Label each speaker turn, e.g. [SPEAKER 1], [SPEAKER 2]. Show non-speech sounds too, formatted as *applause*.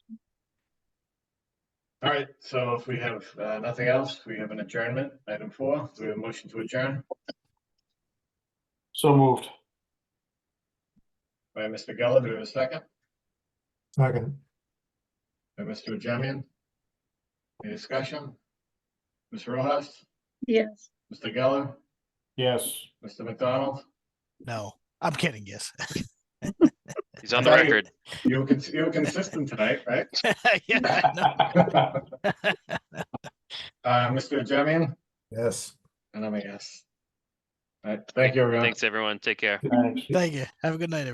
[SPEAKER 1] All right, so if we have uh, nothing else, we have an adjournment, item four, do we have a motion to adjourn
[SPEAKER 2] So moved.
[SPEAKER 1] by Mr. Geller, do we have a second?
[SPEAKER 3] Second,
[SPEAKER 1] By Mr. Jemian? Any discussion? Ms. Rojas,
[SPEAKER 4] Yes.
[SPEAKER 1] Mr. Geller,
[SPEAKER 2] Yes.
[SPEAKER 1] Mr. McDonald,
[SPEAKER 5] No, I'm kidding. Yes. *laughs*
[SPEAKER 6] He's on the
[SPEAKER 1] Right.
[SPEAKER 6] record.
[SPEAKER 1] you were, cons- you were consistent tonight, right?
[SPEAKER 5] yeah, I know.
[SPEAKER 1] Uh, Mr. Jemian,
[SPEAKER 3] yes.
[SPEAKER 1] and I'm a yes. All right, thank you, everyone.
[SPEAKER 6] Thanks, everyone. Take care.
[SPEAKER 2] Thanks.
[SPEAKER 5] Thank you. Have a good night, everyone.